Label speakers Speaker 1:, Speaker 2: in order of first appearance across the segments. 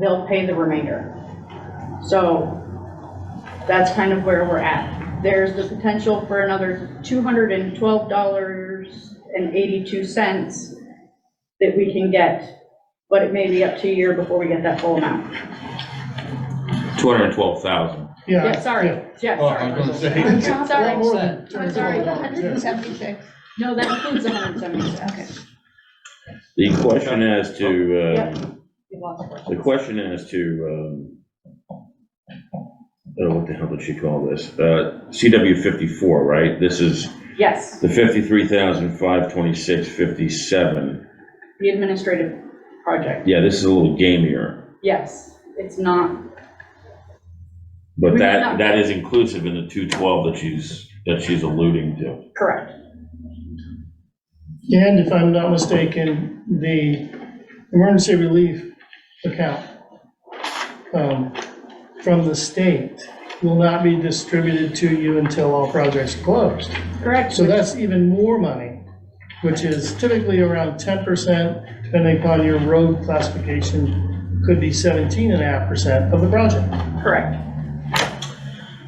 Speaker 1: they'll pay the remainder. So that's kind of where we're at. There's the potential for another two hundred and twelve dollars and eighty-two cents that we can get, but it may be up to a year before we get that full amount.
Speaker 2: 212,000.
Speaker 3: Yeah.
Speaker 1: Yeah, sorry, yeah,
Speaker 4: Oh, I
Speaker 1: sorry.
Speaker 4: was gonna say,
Speaker 1: Sorry.
Speaker 3: More than
Speaker 1: I'm sorry.
Speaker 5: 176.
Speaker 1: No, that includes the hundred and seventy-six.
Speaker 5: Okay.
Speaker 2: The question as to,
Speaker 1: Yep.
Speaker 2: um, the question as to, um, oh, what the hell did she call this? Uh, CW 54, right? This is
Speaker 1: Yes,
Speaker 2: the 53,526.57.
Speaker 1: the administrative project,
Speaker 2: Yeah, this is a little gamier,
Speaker 1: yes, it's not,
Speaker 2: but
Speaker 1: We're
Speaker 2: that,
Speaker 1: not-
Speaker 2: that is inclusive in the 212 that she's, that she's alluding to.
Speaker 1: correct,
Speaker 3: And if I'm not mistaken, the emergency relief account um, from the state will not be distributed to you until all projects are closed.
Speaker 1: correct.
Speaker 3: So that's even more money, which is typically around ten percent, depending upon your road classification, could be seventeen and a half percent of the project.
Speaker 1: Correct.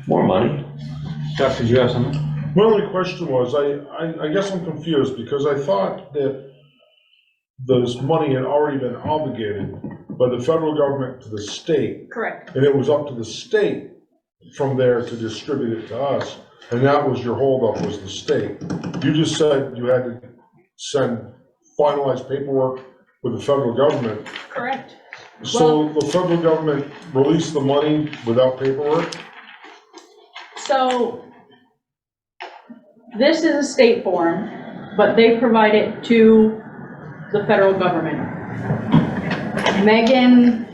Speaker 2: More money.
Speaker 4: Jeff, did you have something?
Speaker 6: My only question was, I, I, I guess I'm confused, because I thought that this money had already been obligated by the federal government to the state,
Speaker 1: Correct.
Speaker 6: and it was up to the state from there to distribute it to us, and that was your holdup, was the state. You just said you had to send finalized paperwork with the federal government,
Speaker 1: Correct.
Speaker 6: so the federal government released the money without paperwork?
Speaker 1: So this is a state form, but they provide it to the federal government. Megan,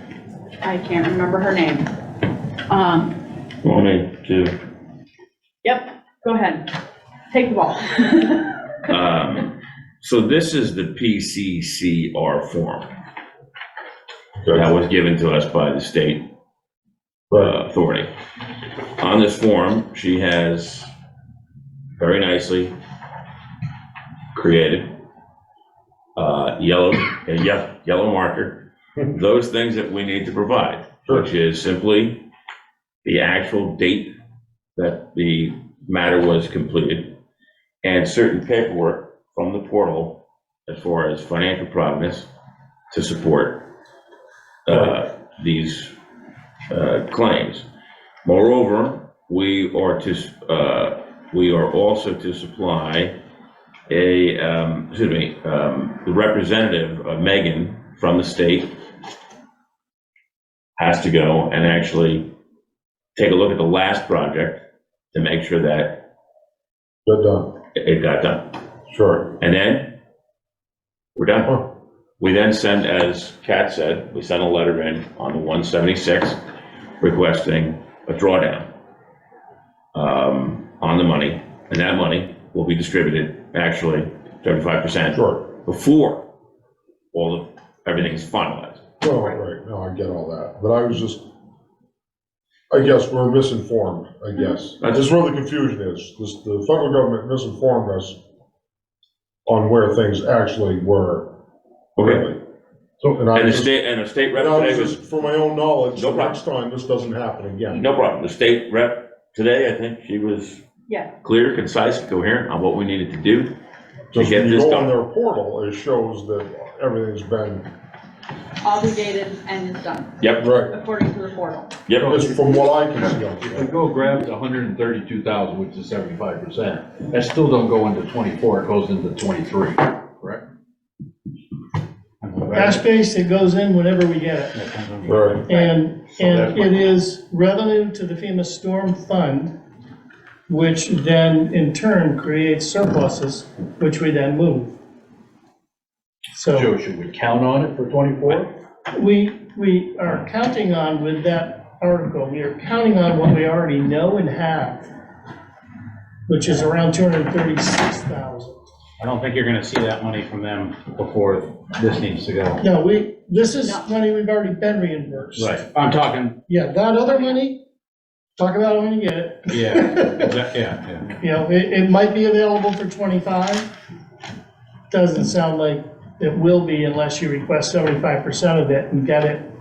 Speaker 1: I can't remember her name. Um,
Speaker 2: Want me to?
Speaker 1: yep, go ahead. Take the ball.
Speaker 2: Um, So this is the PCCR form that was given to us by the state
Speaker 6: Right,
Speaker 2: uh, authority. On this form, she has very nicely created uh, yellow, a ye- yellow marker, those things that we need to provide, which is simply the actual date that the matter was completed and certain paperwork from the portal as far as financial providence to support uh, these uh, claims. Moreover, we are to, uh, we are also to supply a, um, excuse me, um, the representative, uh, Megan, from the state has to go and actually take a look at the last project to make sure that
Speaker 4: uh,
Speaker 6: good done,
Speaker 2: it got done.
Speaker 6: sure.
Speaker 2: And then we're done.
Speaker 6: Huh.
Speaker 2: We then send, as Kat said, we send a letter in on the 176 requesting a drawdown um, on the money, and that money will be distributed, actually, 35%
Speaker 6: Sure.
Speaker 2: before all of, everything is finalized.
Speaker 6: Well, Oh, right, no, I get all that, but I was just, I guess we're misinformed, I
Speaker 2: Mm-hmm.
Speaker 6: guess.
Speaker 2: That's-
Speaker 6: That's where the confusion is, this, the federal government misinformed us on where things actually were, really.
Speaker 4: So-
Speaker 6: And I
Speaker 2: And the
Speaker 6: was just,
Speaker 2: state, and the state
Speaker 6: and I was
Speaker 2: representative was
Speaker 6: just, for my own knowledge,
Speaker 2: No
Speaker 6: the next time this doesn't happen again.
Speaker 2: No problem. The state rep today, I think she was
Speaker 1: Yeah.
Speaker 2: clear, concise, coherent on what we needed to do. To
Speaker 6: Just
Speaker 2: get
Speaker 6: when you
Speaker 2: this
Speaker 6: go
Speaker 2: done.
Speaker 6: on their portal, it shows that everything's been,
Speaker 1: Obligated and is done,
Speaker 2: Yep,
Speaker 6: right,
Speaker 1: according to the portal.
Speaker 2: yep.
Speaker 6: just from what I can see.
Speaker 4: If we
Speaker 6: on it.
Speaker 4: go grab the hundred and thirty-two thousand, which is seventy-five percent, that still don't go into twenty-four, it goes into twenty-three, correct?
Speaker 3: Cash base, it goes in whenever we get it.
Speaker 6: Right,
Speaker 3: And,
Speaker 4: So that
Speaker 3: and
Speaker 4: might-
Speaker 3: it is revenue to the FEMA storm fund, which then in turn creates surpluses, which we then move. So
Speaker 4: Joe, should we count on it for twenty-four?
Speaker 3: we, we are counting on with that article, we are counting on what we already know and have, which is around two hundred and thirty-six thousand.
Speaker 7: I don't think you're gonna see that money from them before this needs to go.
Speaker 3: No, we, this is
Speaker 1: No.
Speaker 3: money we've already been reimbursed.
Speaker 7: Right. I'm talking,
Speaker 3: Yeah, that other money, talk about it when you get it.
Speaker 7: yeah, exa- yeah, yeah.
Speaker 3: You know, it, it might be available for 25. Doesn't sound like it will be unless you request 75% of it and get it